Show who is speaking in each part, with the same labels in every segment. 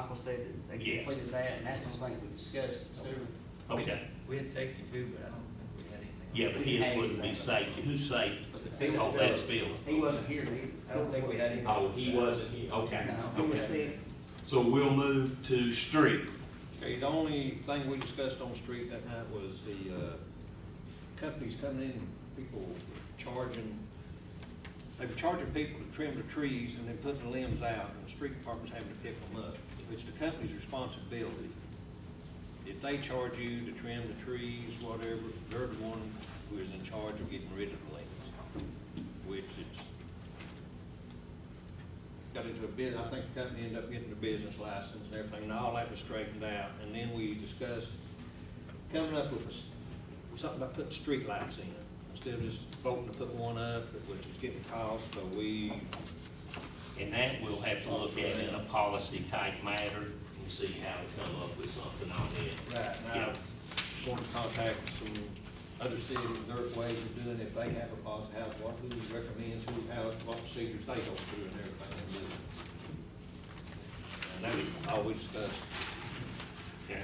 Speaker 1: Michael said that they
Speaker 2: Yes.
Speaker 1: completed that, and that's the only thing we discussed, so.
Speaker 2: Okay,
Speaker 3: We had safety too, but I don't think we had anything.
Speaker 2: yeah, but his wouldn't be safe, who's safe?
Speaker 1: Was it Phil?
Speaker 2: Oh, that's Phil.
Speaker 1: He wasn't here, he.
Speaker 3: I don't think we had any.
Speaker 2: Oh, he wasn't, here. okay,
Speaker 1: No, he was
Speaker 2: okay.
Speaker 1: sick.
Speaker 2: So we'll move to street.
Speaker 4: Okay, the only thing we discussed on the street that night was the, uh, companies coming in, people charging, they were charging people to trim the trees and then putting the limbs out, and the street department's having to pick them up. It's the company's responsibility. If they charge you to trim the trees, whatever, they're the one who is in charge of getting rid of the limbs, which it's, got into a bid, I think the company ended up getting a business license and everything, and all that was straightened out, and then we discussed coming up with a s- something about putting streetlights in, instead of just voting to put one up, which is getting cost, so we,
Speaker 2: And that we'll have to look at in a policy type matter and see how to come up with something on it.
Speaker 4: right now,
Speaker 2: Yeah.
Speaker 4: want to contact some other cities, their ways of doing, if they have a policy, how, what, who recommends, who, how, what procedures they go through and everything, and do. And that was all we discussed.
Speaker 2: Okay.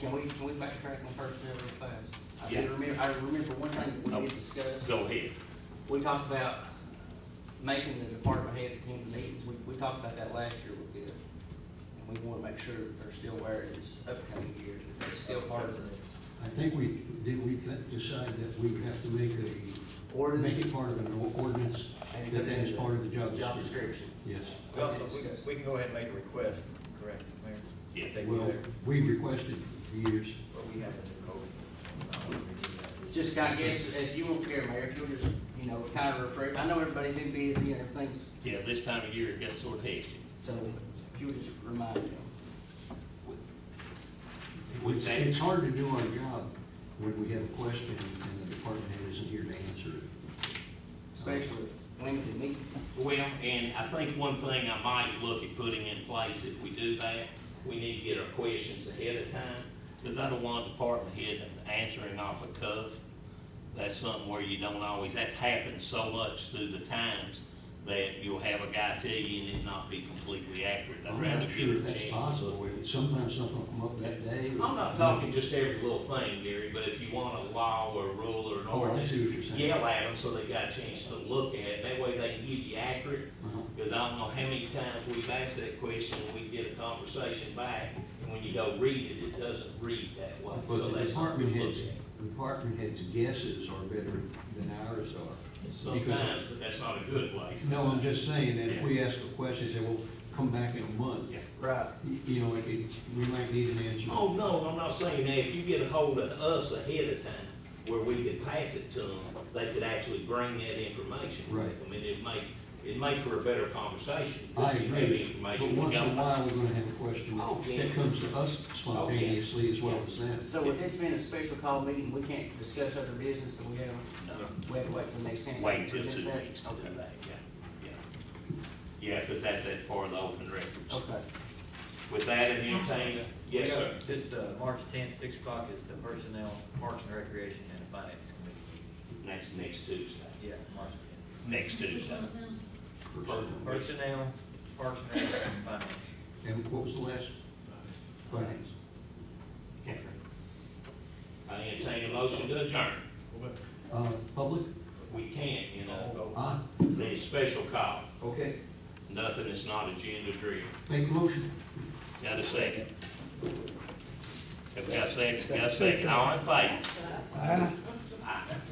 Speaker 1: Can we, can we backtrack on personnel real fast? I
Speaker 2: Yeah.
Speaker 1: did remember, I remember one thing that we
Speaker 2: Oh.
Speaker 1: did discuss.
Speaker 2: Go ahead.
Speaker 1: We talked about making the department heads attend the meetings, we, we talked about that last year with Bill. And we wanna make sure that they're still aware of this upcoming year, that they're still part of the,
Speaker 5: I think we, did we th- decide that we would have to make a, or make it part of an or- ordinance,
Speaker 1: And
Speaker 5: that that is
Speaker 1: put it in
Speaker 5: part of the job
Speaker 1: job description.
Speaker 5: description? Yes.
Speaker 3: Well, so we, we can go ahead and make a request, correct, Mayor?
Speaker 2: Yeah.
Speaker 3: They do
Speaker 5: Well,
Speaker 3: that,
Speaker 5: we requested for years.
Speaker 3: But we have a new code.
Speaker 1: Just kinda guess, if you won't care, Mayor, if you'll just, you know, kinda refresh, I know everybody's been busy and everything's,
Speaker 2: Yeah, this time of year it gets sort of hectic.
Speaker 1: so if you'll just remind them.
Speaker 2: Would
Speaker 5: It's,
Speaker 2: that-
Speaker 5: it's hard to do our job when we have a question and the department head isn't here to answer it.
Speaker 1: especially limited meetings.
Speaker 2: Well, and I think one thing I might look at putting in place, if we do that, we need to get our questions ahead of time, because I don't want department head answering off a cuff. That's something where you don't always, that's happened so much through the times that you'll have a guy tell you and it not be completely accurate. I'd
Speaker 5: I'm
Speaker 2: rather
Speaker 5: not sure
Speaker 2: give
Speaker 5: if
Speaker 2: a
Speaker 5: that's
Speaker 2: chance. to
Speaker 5: possible, Mm-hmm.
Speaker 2: look.
Speaker 5: sometimes something will come up that day.
Speaker 2: I'm not talking just every little thing, Gary, but if you want a law or a rule or an
Speaker 5: Oh, I
Speaker 2: ordinance,
Speaker 5: see what you're saying.
Speaker 2: yell at them so they got a chance to look at it. That way they can give you accurate
Speaker 5: Uh-huh.
Speaker 2: because I don't know how many times we've asked that question, and we get a conversation back, and when you go read it, it doesn't read that way. So
Speaker 5: But the
Speaker 2: that's something
Speaker 5: department
Speaker 2: to look
Speaker 5: heads, department heads' guesses are better than ours are.
Speaker 2: at.
Speaker 5: because-
Speaker 2: Sometimes, but that's not a good way.
Speaker 5: No, I'm just saying that if we ask a question, say, well, come back in a month.
Speaker 2: Yeah.
Speaker 1: Right.
Speaker 5: Y- You know, it, it, we might need an answer.
Speaker 2: Oh, no, I'm not saying that. If you get a hold of us ahead of time, where we could pass it to them, they could actually bring that information.
Speaker 5: Right.
Speaker 2: I mean, it make, it make for a better conversation.
Speaker 5: I
Speaker 2: if you have
Speaker 5: agree, but
Speaker 2: Information. to
Speaker 5: once in a
Speaker 2: go by.
Speaker 5: while, we're gonna have a question
Speaker 2: Oh, yeah.
Speaker 5: that comes to us spontaneously as well as that.
Speaker 1: So with this being a special call meeting, we can't discuss other business and we have,
Speaker 2: No.
Speaker 1: we have to wait for the next time.
Speaker 2: Wait till
Speaker 1: Present
Speaker 2: two
Speaker 1: that?
Speaker 2: weeks to do that, yeah, yeah. Yeah, because that's it for the open records.
Speaker 1: Okay.
Speaker 2: With that in entertained, yes,
Speaker 3: We
Speaker 2: sir.
Speaker 3: got This, uh, March tenth, six o'clock is the personnel, parks and recreation and the finance committee.
Speaker 2: Next, next Tuesday.
Speaker 3: Yeah, March tenth.
Speaker 2: Next Tuesday.
Speaker 3: Personnel, parks and recreation and finance.
Speaker 5: And what was the last? Finance.
Speaker 2: Okay. I entertain a motion to adjourn.
Speaker 5: Uh, public?
Speaker 2: We can't, you know,
Speaker 5: Ah,
Speaker 2: the special call.
Speaker 5: okay,
Speaker 2: Nothing that's not agenda driven.
Speaker 5: make the motion.
Speaker 2: Got a second? Have we got a second? Got a second? All in favor? Aye.